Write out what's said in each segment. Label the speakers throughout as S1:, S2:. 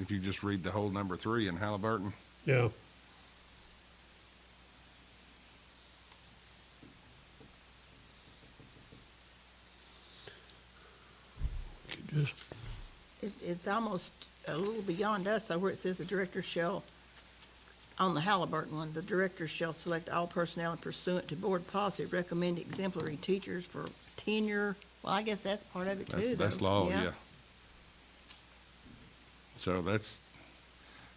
S1: If you just read the whole number three in Halliburton,
S2: yeah. Could Just,
S3: It's, it's almost a little beyond us, though, where it says the director shall, on the Halliburton one, the director shall select all personnel pursuant to board policy, recommend exemplary teachers for tenure. Well, I guess that's part of it too,
S1: that's,
S3: though.
S1: that's law, yeah. So that's,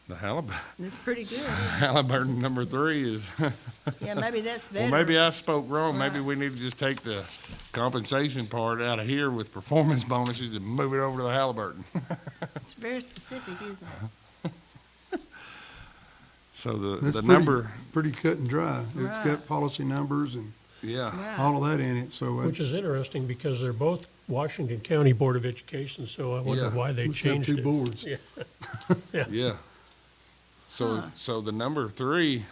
S1: the Halliburton,
S3: And It's pretty good.
S1: Halliburton number three is,
S3: Yeah, maybe that's
S1: well,
S3: better.
S1: maybe I spoke wrong. Maybe
S3: Right.
S1: we need to just take the compensation part out of here with performance bonuses and move it over to the Halliburton.
S3: It's very specific, isn't it?
S1: So the,
S4: That's
S1: the
S4: pretty-
S1: number,
S4: Pretty cut and dry. It's
S3: Right.
S4: got policy numbers and
S1: yeah,
S3: Right.
S4: all of that in it, so
S2: which is
S4: it's.
S2: interesting because they're both Washington County Board of Education, so I wonder
S1: Yeah.
S2: why they
S4: Must have
S2: changed
S4: Two
S2: it.
S4: boards.
S2: Yeah.
S1: yeah. So,
S3: Huh.
S1: so the number three,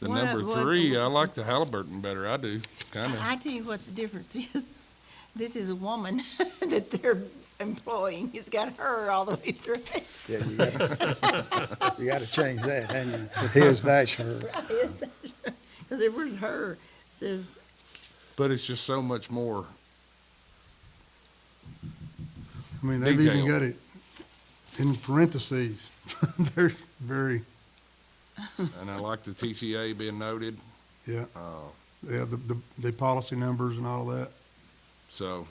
S1: the
S3: What-
S1: number
S3: what-
S1: three, I like the Halliburton better. I do, kinda.
S3: I I tell you what the difference is. This is a woman that they're employing. It's got her all the way through it.
S5: Yeah, you gotta, you gotta change that, hadn't you? With his dash her.
S3: Because it was her, says,
S1: But it's just so much more.
S4: I mean, they've even
S1: Detail.
S4: got it in parentheses. They're very,
S1: And I like the TCA being noted,
S4: yeah.
S1: Oh.
S4: Yeah, the, the, the policy numbers and all that.
S1: so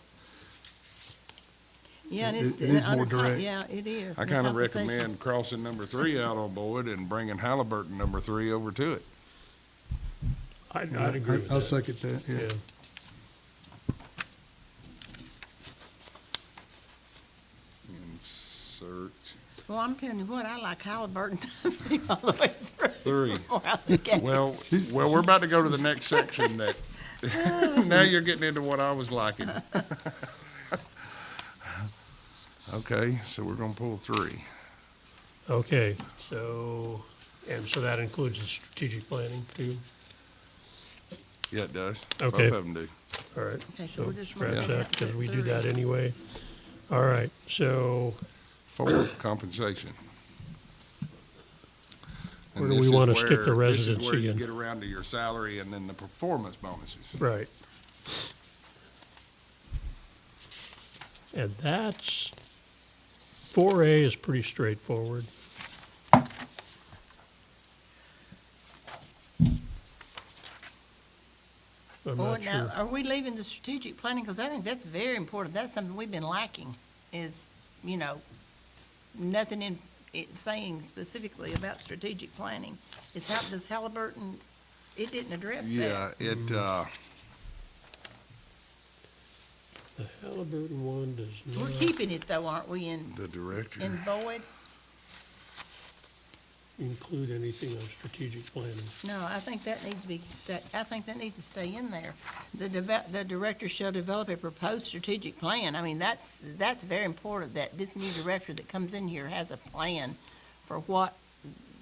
S3: yeah, and
S4: It-
S3: it's.
S4: it is
S3: under
S4: more
S3: con-
S4: direct.
S3: Yeah, it is.
S1: I
S3: and
S1: kind of
S3: compensation.
S1: recommend crossing number three out on board and bringing Halliburton number three over to it.
S2: I, I'd agree with
S4: I'll
S2: that.
S4: second that, yeah.
S2: Yeah.
S1: Insert
S3: Well, I'm telling you what, I like Halliburton all the way through.
S1: three.
S3: Or I look at it.
S1: Well, well, we're about to go to the next section that, now you're getting into what I was liking. Okay, so we're gonna pull three.
S2: Okay, so, and so that includes the strategic planning too?
S1: Yeah, it does.
S2: Okay.
S1: Both of them do.
S2: All right,
S3: Okay, so
S2: so
S3: we're just running
S2: scratch
S3: that
S2: that because
S3: to
S2: we do that
S3: three.
S2: anyway. All right, so
S1: Four, compensation. And
S2: Where do we
S1: this is
S2: wanna stick the
S1: where- this is where
S2: residency
S1: you
S2: in?
S1: Get around to your salary and then the performance bonuses.
S2: Right. And that's, four A is pretty straightforward. I'm
S3: Boy,
S2: not
S3: now,
S2: sure.
S3: are we leaving the strategic planning? Because I think that's very important. That's something we've been lacking is, you know, nothing in, it saying specifically about strategic planning. Is how, does Halliburton, it didn't address that.
S1: Yeah,
S2: Mm.
S1: it, uh,
S2: The Halliburton one does
S3: We're
S2: not
S3: keeping it though, aren't we, in,
S1: the director.
S3: in Boyd?
S2: include anything on strategic planning.
S3: No, I think that needs to be, sta- I think that needs to stay in there. The deve- the director shall develop a proposed strategic plan. I mean, that's, that's very important, that this new director that comes in here has a plan for what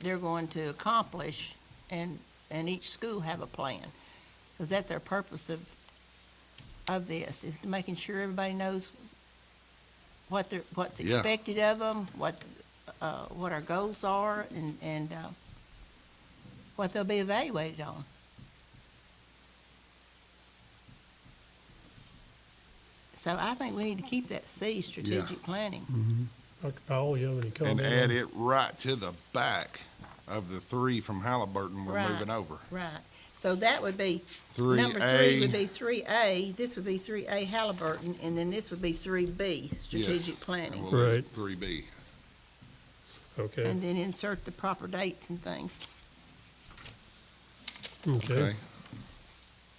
S3: they're going to accomplish, and, and each school have a plan. Because that's our purpose of, of this, is making sure everybody knows what they're, what's
S1: Yeah.
S3: expected of them, what, uh, what our goals are, and, and, uh, what they'll be evaluated on. So I think we need to keep that C, strategic planning.
S1: Mm.
S2: Dr. Powell, you have any
S1: And
S2: comment?
S1: add it right to the back of the three from Halliburton we're
S3: Right.
S1: moving over.
S3: Right. So that would be,
S1: Three
S3: number three would
S1: A,
S3: be three A, this would be three A Halliburton, and then this would be three B, strategic
S1: and
S3: planning.
S1: we'll leave it
S2: Right.
S1: three B.
S2: Okay,
S3: And then insert the proper dates and things.
S2: okay.
S1: Okay,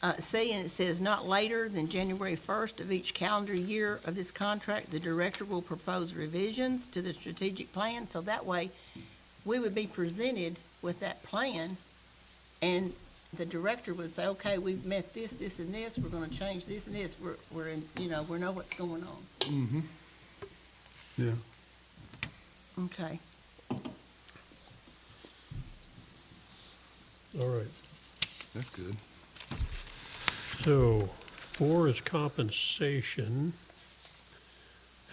S3: Uh, C, and it says not later than January first of each calendar year of this contract, the director will propose revisions to the strategic plan, so that way we would be presented with that plan, and the director would say, okay, we've met this, this, and this, we're gonna change this and this, we're, we're in, you know, we know what's going on.
S4: Yeah.
S3: Okay,
S2: All right.
S1: that's good.
S2: So four is compensation.